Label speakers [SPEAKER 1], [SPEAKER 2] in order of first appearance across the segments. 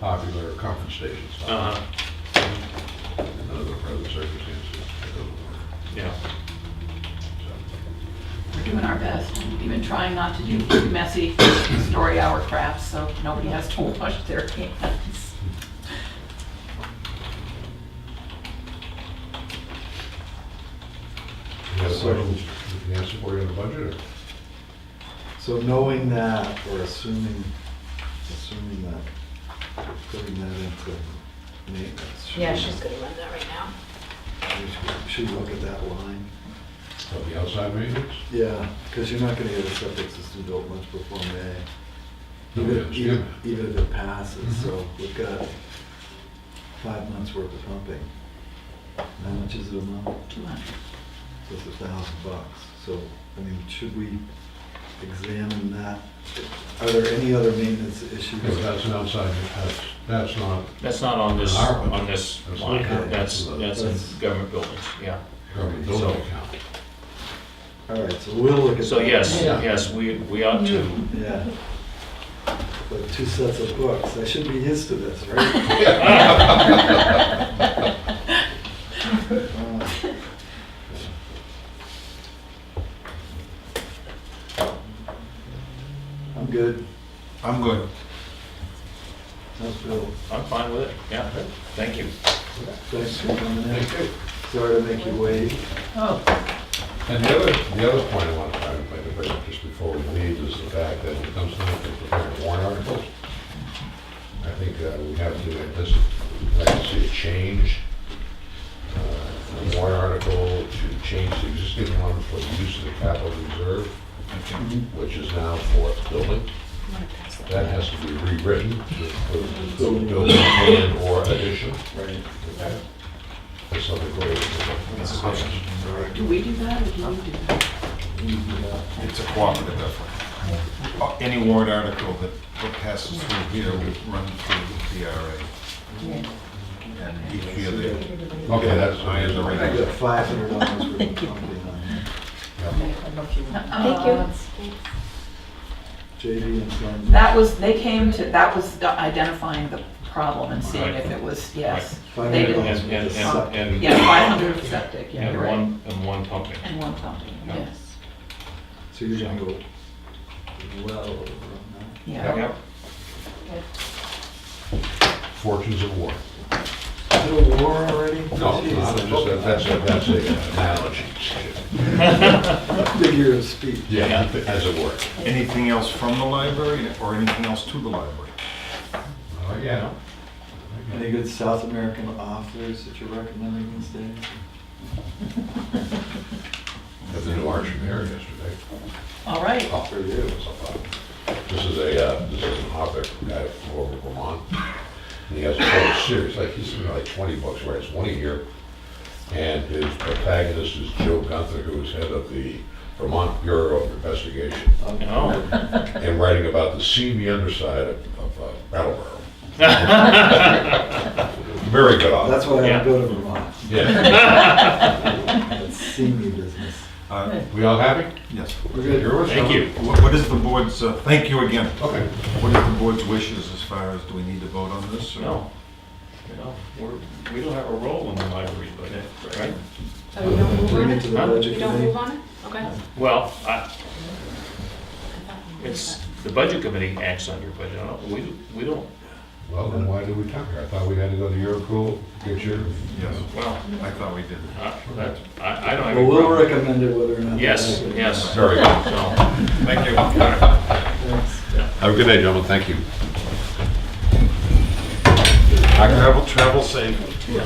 [SPEAKER 1] popular conference station style.
[SPEAKER 2] Uh-huh,
[SPEAKER 1] And other present circumstances. it doesn't
[SPEAKER 2] yeah.
[SPEAKER 1] work.
[SPEAKER 3] We're doing our best. We've been trying not to do messy story hour crafts, so nobody has to wash their hands.
[SPEAKER 1] So, You got
[SPEAKER 4] So-
[SPEAKER 1] questions you can answer for you on the budget?
[SPEAKER 4] So knowing that, or assuming, assuming that, putting that into maintenance. should
[SPEAKER 5] Yeah,
[SPEAKER 4] we-
[SPEAKER 5] she's gonna run that right now.
[SPEAKER 4] we should- Should we look at that line?
[SPEAKER 1] Or of the outside maintenance?
[SPEAKER 4] Yeah, because you're not gonna get a septic system built much before May.
[SPEAKER 1] No, we
[SPEAKER 4] Even,
[SPEAKER 1] understand.
[SPEAKER 4] even even if it passes,
[SPEAKER 1] Mhm.
[SPEAKER 4] so we've got five months worth of pumping. And How much is it a month?
[SPEAKER 3] Two hundred.
[SPEAKER 4] It's a thousand bucks. So, I mean, should we examine that? Are there any other maintenance issues?
[SPEAKER 1] Yeah, but that's an outside, that's, that's not
[SPEAKER 2] That's not on this,
[SPEAKER 1] Our one.
[SPEAKER 2] on this
[SPEAKER 1] That's
[SPEAKER 2] line,
[SPEAKER 1] okay.
[SPEAKER 2] that's, that's in
[SPEAKER 4] That's-
[SPEAKER 2] government buildings, yeah.
[SPEAKER 1] government
[SPEAKER 2] So-
[SPEAKER 1] building account.
[SPEAKER 4] All right, so we'll look at.
[SPEAKER 2] So
[SPEAKER 4] that.
[SPEAKER 2] yes,
[SPEAKER 1] Yeah.
[SPEAKER 2] yes, we, we ought to,
[SPEAKER 4] Yeah. But two sets of books, I should be used to this, right? Uh, I'm good,
[SPEAKER 6] I'm good.
[SPEAKER 4] that's Bill.
[SPEAKER 2] I'm fine with it, yeah, thank you.
[SPEAKER 4] Thanks for coming in.
[SPEAKER 1] Thank you.
[SPEAKER 4] Sorry to make you wait.
[SPEAKER 3] Oh,
[SPEAKER 1] And the other, the other point I want to try to make about just before we leave is the fact that when it comes time to prepare warrant articles, I think uh, we have to, antici- like to see a change, uh, from warrant article to change the existing one for the use of the capital reserve, which is now for building.
[SPEAKER 5] I'm gonna pass that.
[SPEAKER 1] That has to be rewritten to include the building plan or addition.
[SPEAKER 4] Right.
[SPEAKER 1] Okay. That's something great.
[SPEAKER 3] do we do that or do you do that?
[SPEAKER 6] It's a cooperative effort. Uh, Any warrant article that that passes through here would run through the DRA.
[SPEAKER 3] Yeah.
[SPEAKER 6] And each year they,
[SPEAKER 1] Okay, that's, I am the
[SPEAKER 4] I
[SPEAKER 1] right.
[SPEAKER 4] got five hundred dollars worth of pumping on here.
[SPEAKER 5] Thank you.
[SPEAKER 3] Uh,
[SPEAKER 4] JD and Glenn.
[SPEAKER 3] That was, they came to, that was identifying the problem and seeing if it was, yes.
[SPEAKER 4] Five
[SPEAKER 3] They
[SPEAKER 4] hundred
[SPEAKER 3] didn't-
[SPEAKER 2] And, and,
[SPEAKER 4] dollars worth of septic.
[SPEAKER 2] and,
[SPEAKER 3] Yeah,
[SPEAKER 2] and-
[SPEAKER 3] five hundred of septic, yeah,
[SPEAKER 2] and
[SPEAKER 3] you're right.
[SPEAKER 2] one, and one pumping.
[SPEAKER 3] And one pumping,
[SPEAKER 2] Yeah.
[SPEAKER 3] yes,
[SPEAKER 4] So you're gonna go well over on that.
[SPEAKER 3] yeah.
[SPEAKER 2] Yep,
[SPEAKER 1] Fortunes of war.
[SPEAKER 4] Is it a war already?
[SPEAKER 1] No,
[SPEAKER 4] Jeez.
[SPEAKER 1] no, I'm just- that's, a- that's a uh, analogy.
[SPEAKER 4] Figure of speech.
[SPEAKER 1] Yeah, as it were.
[SPEAKER 6] anything else from the library or anything else to the library?
[SPEAKER 1] Oh, yeah.
[SPEAKER 4] Any good South American authors that you're recommending these days?
[SPEAKER 1] That's the new Archimere yesterday.
[SPEAKER 3] All right,
[SPEAKER 1] Oh, there it is. This is a, uh, this is an author, guy from over Vermont. And he has a whole series, like he's written like 20 books, he writes one a year. And his protagonist is Joe Gunther, who is head of the Vermont Bureau of Investigation,
[SPEAKER 4] Um,
[SPEAKER 2] No.
[SPEAKER 1] and writing about the seamy underside of of, uh, Brattleboro. Very good author.
[SPEAKER 4] That's why I
[SPEAKER 2] Yeah.
[SPEAKER 4] don't go to Vermont.
[SPEAKER 1] Yeah.
[SPEAKER 4] That's senior business.
[SPEAKER 6] Uh,
[SPEAKER 1] We all happy?
[SPEAKER 6] Yes.
[SPEAKER 4] We're good.
[SPEAKER 1] Yours?
[SPEAKER 2] thank you.
[SPEAKER 6] Wha- What is the board's, uh, thank you again.
[SPEAKER 1] Okay.
[SPEAKER 6] What is the board's wishes as far as, do we need to vote on this? or-
[SPEAKER 2] No, no, we're, we don't have a role in the library, but, right?
[SPEAKER 5] Oh, you don't move
[SPEAKER 4] Bring
[SPEAKER 5] on
[SPEAKER 4] it to
[SPEAKER 5] it?
[SPEAKER 4] the
[SPEAKER 2] Huh?
[SPEAKER 4] budget
[SPEAKER 5] You don't move
[SPEAKER 4] committee.
[SPEAKER 5] on it? Okay.
[SPEAKER 2] Well, I,
[SPEAKER 5] I thought you
[SPEAKER 2] it's,
[SPEAKER 5] moved
[SPEAKER 2] the budget committee acts on your budget, I don't- we, we don't,
[SPEAKER 1] Well, then why did we talk here? I thought we had to go to Eurocool, get your,
[SPEAKER 6] Yes,
[SPEAKER 2] well,
[SPEAKER 6] I thought we did.
[SPEAKER 2] I, that's- I I don't have
[SPEAKER 4] Well,
[SPEAKER 2] any
[SPEAKER 4] we'll
[SPEAKER 2] problem.
[SPEAKER 4] recommend it whether or not.
[SPEAKER 2] Yes, yes,
[SPEAKER 1] very good.
[SPEAKER 2] so.
[SPEAKER 6] Thank you.
[SPEAKER 4] Thanks.
[SPEAKER 1] Have a good day, gentlemen. Thank you.
[SPEAKER 6] Travel, travel safe.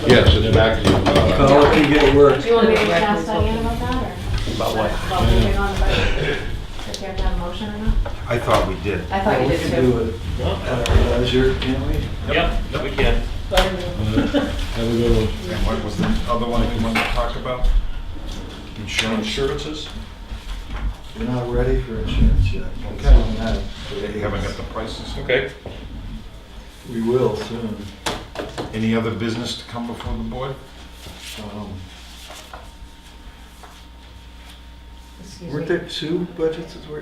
[SPEAKER 1] Yes, it's back to you. Uh,
[SPEAKER 4] Call if you get work.
[SPEAKER 5] that. Do you want me to ask Diane about that or? About what? About moving on the budget? If you have to have a motion or not?
[SPEAKER 6] I thought we did.
[SPEAKER 5] I thought you
[SPEAKER 4] We
[SPEAKER 5] did
[SPEAKER 4] can do
[SPEAKER 5] too.
[SPEAKER 4] it at our leisure, can't we?
[SPEAKER 2] Yep, we can.
[SPEAKER 6] And what was the other one we wanted to talk about? Insurance.
[SPEAKER 2] Insurances?
[SPEAKER 4] We're not ready for insurance yet. It's
[SPEAKER 6] Okay.
[SPEAKER 4] on that.
[SPEAKER 6] They haven't got the prices.
[SPEAKER 2] Okay.
[SPEAKER 4] We will soon.
[SPEAKER 6] Any other business to come before the board?
[SPEAKER 4] Um,
[SPEAKER 5] Excuse
[SPEAKER 4] Weren't
[SPEAKER 5] me.
[SPEAKER 4] there two budgets that were